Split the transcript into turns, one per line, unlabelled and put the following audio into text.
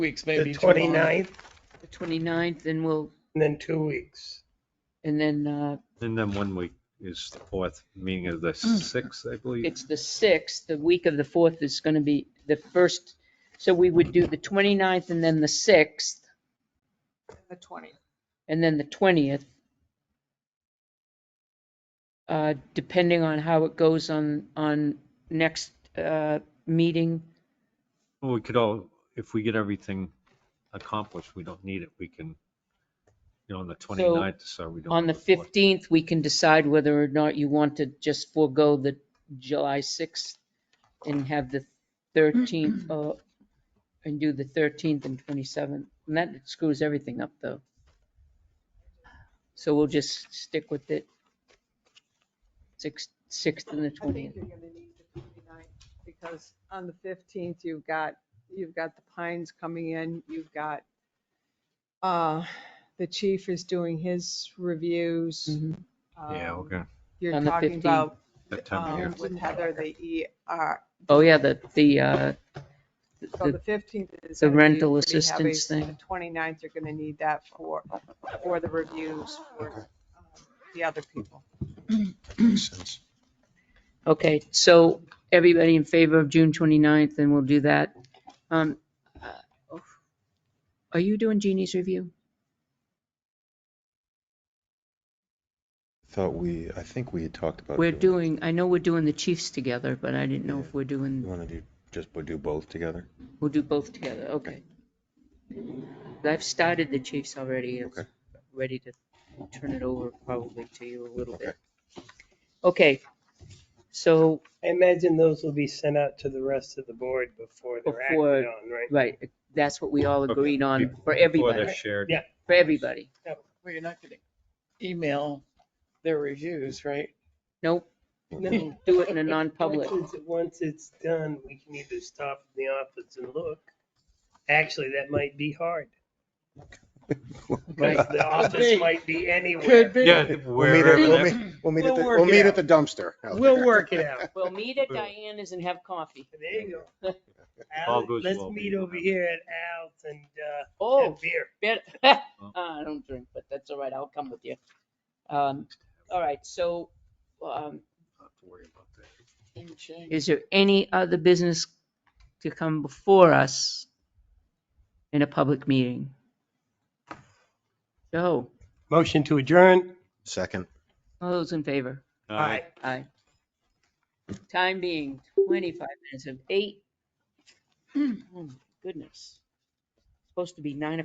weeks
the
maybe. too long.
29th,
the 29th, and we'll,
and then two weeks.
and then uh,
And then one week is the fourth, meaning of the sixth, I believe.
it's the 6th, the week of the 4th is going to be the first, so we would do the 29th and then the 6th,
the twentieth.
and then the 20th. Uh, Depending on how it goes on, on next uh, meeting,
Well, We could all, if we get everything accomplished, we don't need it. We can, you know, on the 29th, so we don't.
on the
have a fourth.
15th, we can decide whether or not you want to just forego the July 6th and have the 13th, uh, and do the 13th and 27th. And that screws everything up, though. So we'll just stick with it. 6th, 6th and the
I think
20th.
you're gonna need the twenty-ninth, because on the fifteenth, you've got, you've got the Pines coming in, you've got, uh, the chief is doing his reviews.
Mhm.
Yeah,
um,
okay.
You're
On the
talking
15th.
about,
That time of
um,
year.
with Heather, the ER,
Oh, yeah, the, the, uh,
so
the-
the fifteenth is.
the
gonna be
rental
pretty heavy,
assistance
so the
thing.
29th, you're gonna need that for, for the reviews, for um, the other people.
Makes sense.
Okay, so everybody in favor of June 29th, and we'll do that. Um, uh, Are you doing Jeannie's review?
Thought we, I think we had talked about.
We're doing, I know we're doing the chiefs together, but I didn't know if we're
You
doing,
want to do, just we'll do both together?
we'll do both together, okay. I've started the chiefs already, it's
Okay.
ready to turn it over probably to you a little
Okay.
bit. Okay, so,
I imagine those will be sent out to the rest of the board before they're acted
Before-
on, right?
right, that's what we all agreed on for
Before they're
everybody,
shared.
Yeah.
for everybody.
Well, you're not gonna email their reviews, right?
Nope,
No.
do it in a non-public.
Once it's- Once it's done, we can either stop in the office and look. Actually, that might be hard. Because the office
be.
might be
Could
anywhere.
be.
Yeah,
We'll meet at, we'll
wherever,
meet, we'll meet at,
We'll
the-
work
we'll
it
meet
out.
at the dumpster.
We'll work it out.
We'll meet at Diana's and have coffee.
There you go.
All
Al,
goes
Let's
well.
meet over here at Al's and, uh,
Oh,
have beer.
bet- Ah, I don't drink, but that's all right, I'll come with you. Um, all right, so, um, Is there any other business to come before us in a public meeting? Joe,
Motion to adjourn.
Second.
all those in favor?
Aye.
Aye. Time being 25 minutes of eight. Oh my Goodness. Supposed to be nine